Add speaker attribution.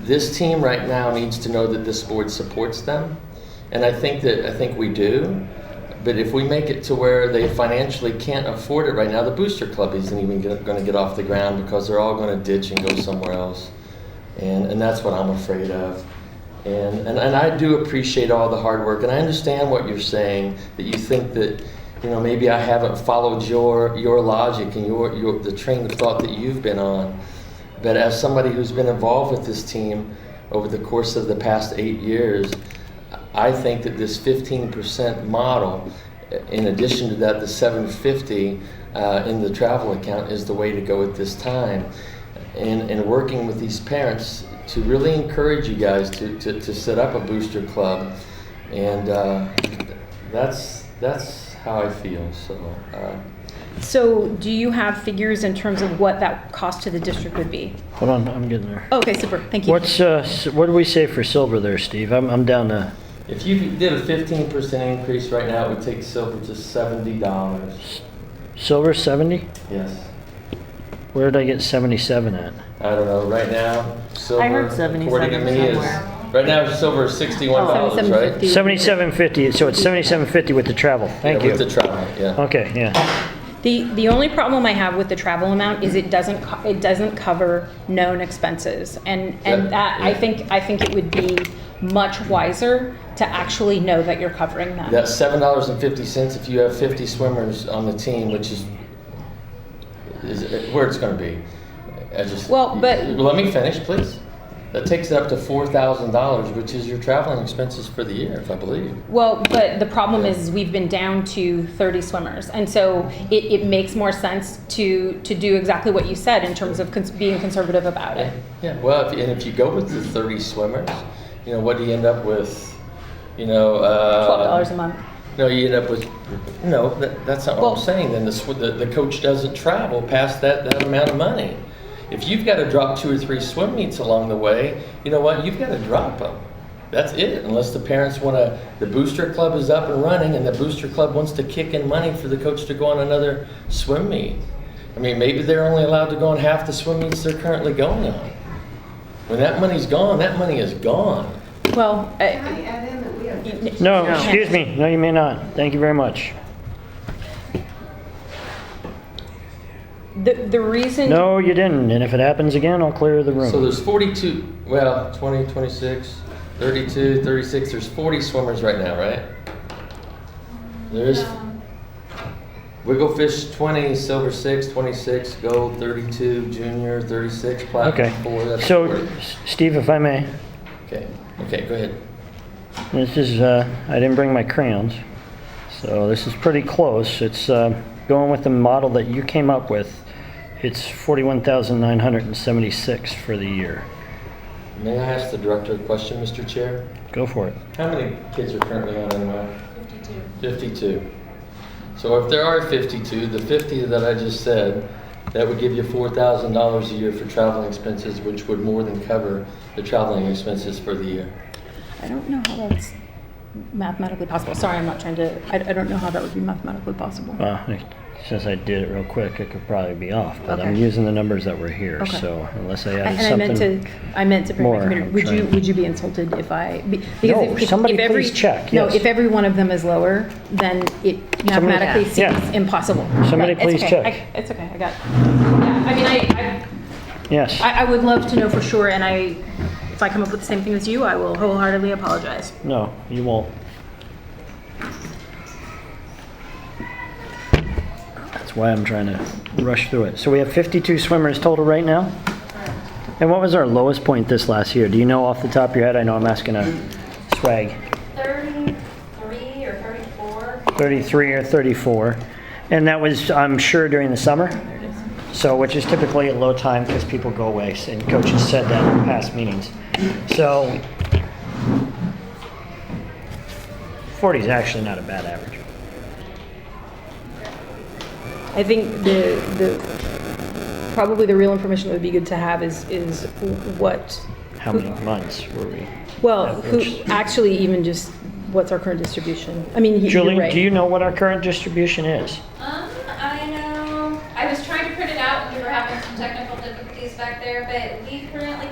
Speaker 1: this team right now needs to know that this board supports them, and I think that I think we do. But if we make it to where they financially can't afford it right now, the booster club isn't even going to get off the ground because they're all going to ditch and go somewhere else, and and that's what I'm afraid of. And, and and I do appreciate all the hard work, and I understand what you're saying that you think that you know maybe I haven't followed your your logic and your your the train of thought that you've been on. But as somebody who's been involved with this team over the course of the past eight years, I think that this 15% model, in addition to that, the 750 uh, in the travel account is the way to go at this time. And, and working with these parents to really encourage you guys to, to, to set up a booster club. And uh, that's, that's how I feel. So, uh,
Speaker 2: So do you have figures in terms of what that cost to the district would be?
Speaker 3: Hold on, I'm getting there.
Speaker 2: Okay, super, thank you.
Speaker 3: What's, uh, s- what do we say for silver there, Steve? I'm, I'm down to
Speaker 1: if you did a 15% increase right now, it would take silver to $70.
Speaker 3: silver 70?
Speaker 1: Yes.
Speaker 3: Where did I get 77 at?
Speaker 1: I don't know. Right now, silver.
Speaker 4: I heard 77
Speaker 1: according to me, is-
Speaker 4: somewhere. Oh,
Speaker 1: Right now, silver is sixty-one dollars, right?
Speaker 2: 77.50.
Speaker 3: 77.50, so it's 77.50 with the travel. Thank
Speaker 1: Yeah, With
Speaker 3: you.
Speaker 1: the travel, yeah.
Speaker 3: Okay, yeah.
Speaker 2: The, the only problem I have with the travel amount is it doesn't, co- it doesn't cover known expenses. And,
Speaker 1: Yeah,
Speaker 2: and that, I
Speaker 1: yeah.
Speaker 2: think, I think it would be much wiser to actually know that you're covering them.
Speaker 1: That's seven dollars and fifty cents if you have fifty swimmers on the team, which is, is where it's gonna be. I just.
Speaker 2: Well, but-
Speaker 1: Let me finish, please. That takes it up to four thousand dollars, which is your traveling expenses for the year, if I believe.
Speaker 2: Well, but the problem is we've been down to 30 swimmers. And so it, it makes more sense to, to do exactly what you said in terms of cons- being conservative about it.
Speaker 1: Yeah, well, if, and if you go with the thirty swimmers, you know, what do you end up with? You know, uh.
Speaker 2: $12 a month.
Speaker 1: No, you end up with, no, that, that's not what
Speaker 2: Well-
Speaker 1: I'm saying, then the, sw- the, the coach doesn't travel past that, that amount of money. If you've gotta drop two or three swim meets along the way, you know what, you've gotta drop them. That's it, unless the parents wanna, the booster club is up and running and the booster club wants to kick in money for the coach to go on another swim meet. I mean, maybe they're only allowed to go on half the swim meets they're currently going on. When that money's gone, that money is gone.
Speaker 2: Well, I-
Speaker 5: Can I add in that we have
Speaker 3: No,
Speaker 4: No.
Speaker 3: excuse me. No, you may not. Thank you very much.
Speaker 2: the, the reason.
Speaker 3: No, you didn't. And if it happens again, I'll clear the
Speaker 1: So
Speaker 3: room.
Speaker 1: there's 42, well, 20, 26, 32, 36, there's 40 swimmers right now, right? There's Wigglefish 20, Silver 6, 26, Gold 32, Junior 36,
Speaker 3: Okay.
Speaker 1: Platinum 4, that's
Speaker 3: So,
Speaker 1: 40.
Speaker 3: S- Steve, if I may,
Speaker 1: Okay, okay, go ahead.
Speaker 3: this is, uh, I didn't bring my crayons. So this is pretty close. It's, uh, going with the model that you came up with. It's 41,976 for the year.
Speaker 1: May I ask the director a question, Mr. Chair?
Speaker 3: Go for it.
Speaker 1: How many kids are currently on NY? 52. 52. So if there are 52, the 50 that I just said, that would give you $4,000 a year for traveling expenses, which would more than cover the traveling expenses for the year.
Speaker 2: I don't know how that's mathematically possible. Sorry, I'm not trying to. I, I don't know how that would be mathematically possible.
Speaker 3: Well, I- since I did it real quick, it could probably be off, but I'm
Speaker 2: Okay.
Speaker 3: using the numbers that were here,
Speaker 2: Okay.
Speaker 3: so unless I
Speaker 2: I-
Speaker 3: added
Speaker 2: and I meant to.
Speaker 3: something.
Speaker 2: I meant to bring my
Speaker 3: more,
Speaker 2: computer.
Speaker 3: I'm
Speaker 2: Would you?
Speaker 3: trying.
Speaker 2: Would you be insulted if I? be- Because
Speaker 3: No,
Speaker 2: if, if,
Speaker 3: somebody
Speaker 2: if every,
Speaker 3: please check,
Speaker 2: No,
Speaker 3: yes.
Speaker 2: if every one of them is lower, then it mathematically seems
Speaker 3: Yeah.
Speaker 2: impossible.
Speaker 3: Somebody
Speaker 2: Right, it's
Speaker 3: please
Speaker 2: okay.
Speaker 3: check.
Speaker 2: I, it's okay. I got. Yeah, I mean, I,
Speaker 3: Yes,
Speaker 2: I, I would love to know for sure, and I, if I come up with the same thing as you, I will wholeheartedly apologize.
Speaker 3: no, you won't. That's why I'm trying to rush through it. So we have 52 swimmers total right now? And what was our lowest point this last year? Do you know off the top of your head? I know I'm asking a swag.
Speaker 6: 33 or 34.
Speaker 3: 33 or 34. And that was, I'm sure, during the summer? So, which is typically a low time because people go away, and coaches said that in past meetings. So, 40 is actually not a bad average.
Speaker 2: I think the, the, probably the real information that would be good to have is, is what,
Speaker 3: How many months were we?
Speaker 2: well, who,
Speaker 3: Average.
Speaker 2: actually even just, what's our current distribution? I mean, you- you're
Speaker 3: Julie, do you
Speaker 2: right.
Speaker 3: know what our current distribution is?
Speaker 6: Um, I know, I was trying to print it out, and we were having some technical difficulties back there, but we